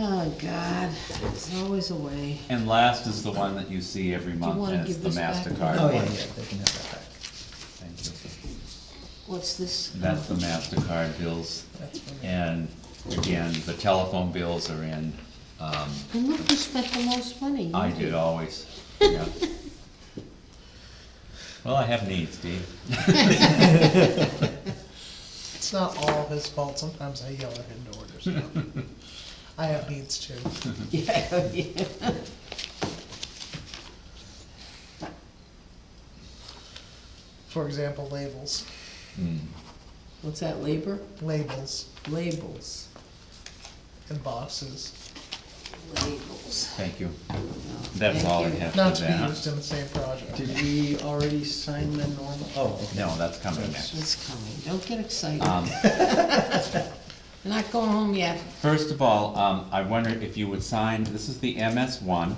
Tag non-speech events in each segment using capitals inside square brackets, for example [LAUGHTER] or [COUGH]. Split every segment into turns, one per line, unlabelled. Oh, God, there's always a way.
And last is the one that you see every month,
wanna
and it's
give
the
this back?
MasterCard
Oh, yeah,
one.
yeah, they can have that back.
Thank you.
What's this?
That's the MasterCard bills,
That's fine.
and again, the telephone bills are in, um,
And look who spent the most money.
I did always, yeah. Well, I have needs, Dee.
It's not all his fault, sometimes I yell at him to order stuff. I have needs too.
Yeah, yeah.
For example, labels,
Hmm.
What's that, labor?
labels
Labels.
and boxes,
Labels.
Thank you.
Oh,
That's all I have
not
for
to be used
that.
in the same project.
Did we already sign the normal? Oh, okay.
No, that's coming next.
It's coming, don't get excited.
Um,
You're [LAUGHS] Not going home yet.
First of all, um, I wonder if you would sign, this is the MS one.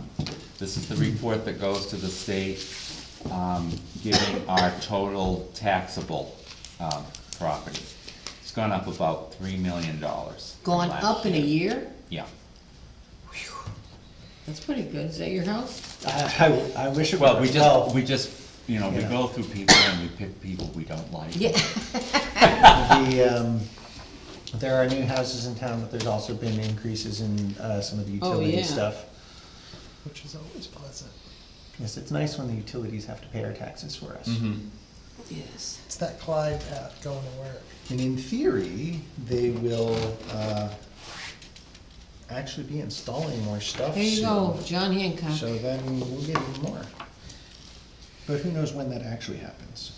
This is the report that goes to the state, um, giving our total taxable, um, property. It's gone up about three million dollars. from
Gone
last
up in a year?
Yeah.
That's pretty good. Is that your house?
I, I I wish it were
Well, we just,
twelve.
we just, you know, we
Yeah.
go through people and we pick people we don't like.
Yeah.
The, um, there are new houses in town, but there's also been increases in, uh, some of the
Oh,
utility
yeah.
stuff.
Which is always pleasant.
Yes, it's nice when the utilities have to pay our taxes for us.
Mhm.
[LAUGHS] Yes.
It's that Clyde path going to work.
And in theory, they will, uh, actually be installing more stuff
There you
soon.
go, John Hancock.
So then we'll get even more. But who knows when that actually happens?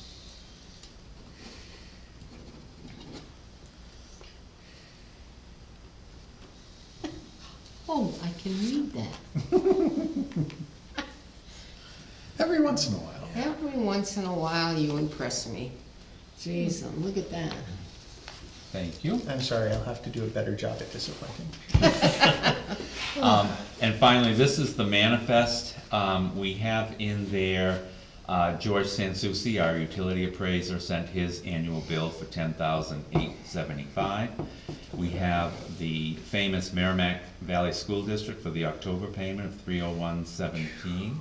Oh, I can read that.
Every once in a while.
Every once in a while, you impress me. Jeez, and look at that.
Thank you.
I'm sorry, I'll have to do a better job at disappointing.
Um, and finally, this is the manifest. Um, we have in there, uh, George Sansucci, our utility appraiser, sent his annual bill for ten thousand eight seventy-five. We have the famous Merrimack Valley School District for the October payment of three oh one seventeen.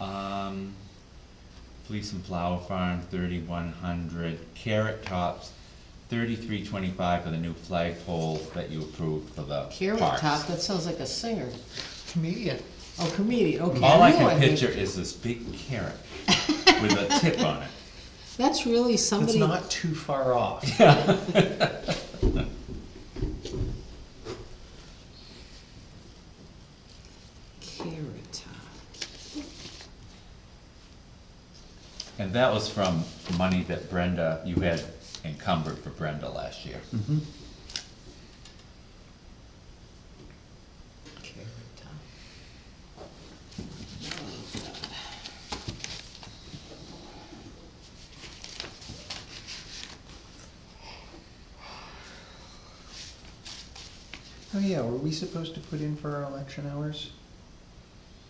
Um, Fleece and Flower Farm, thirty-one hundred. Carrot Tops, thirty-three twenty-five for the new flagpole that you approved for the
Carrot
parks.
Top, that sounds like a singer.
Comedian.
Oh, comedian, okay.
All I
knew
can
knew-
picture is this big carrot with a tip on it.
That's really
It's
somebody,
not too far off.
[LAUGHS] Carrot Top.
And that was from money that Brenda, you had encumbered for Brenda last year.
Carrot Top. Oh, God.
Oh yeah, were we supposed to put in for our election hours?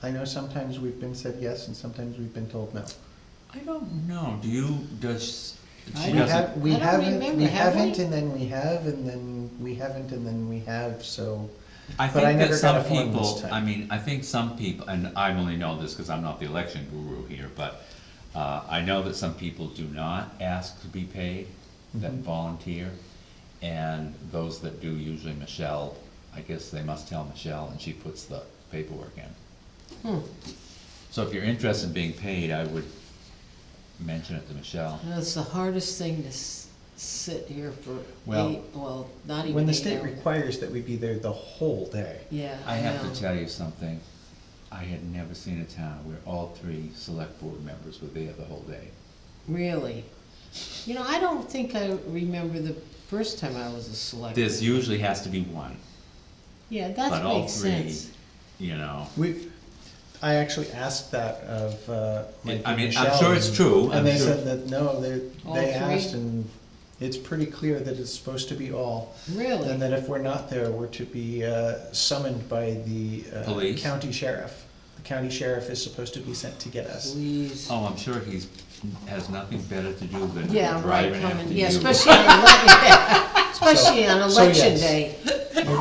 I know sometimes we've been said yes and sometimes we've been told no.
I don't know, do you, does,
I
she
don't-
We
doesn't,
have, we
I don't
haven't,
remember,
we
have we?
haven't, and then we have, and then we haven't, and then we have, so.
I
but I
think that
never got
some
a form this
people,
time.
I mean, I think some people, and I only know this because I'm not the election guru here, but, uh, I know that some people do not ask to be paid, that
Mm-hmm.
volunteer. And those that do, usually Michelle, I guess they must tell Michelle and she puts the paperwork in.
Hmm,
So if you're interested in being paid, I would mention it to Michelle.
that's the hardest thing to s- sit here for
Well,
eight, well, not even eight hours.
When the state requires that we be there the whole day.
Yeah,
I have
know.
to tell you something. I had never seen a town where all three select board members were there the whole day.
Really? You know, I don't think I remember the first time I was a selectman.
There's usually has to be one,
Yeah,
but
that
all
makes
three,
sense.
you know.
We, I actually asked that of, uh, Mike
I
and
mean, I'm
Michelle,
sure it's
and-
true, I'm
And they
sure.
said that, no, they,
All
they
three?
asked, and it's pretty clear that it's supposed to be all. And
Really?
that if we're not there, we're to be uh, summoned by the uh,
Police.
county sheriff. The county sheriff is supposed to be sent to get us.
Please.
Oh, I'm sure he's, has nothing better to do than
Yeah, right,
driving after
coming,
you. [LAUGHS]
yeah, especially on, ele- yeah, especially on
so
election
yes.
day.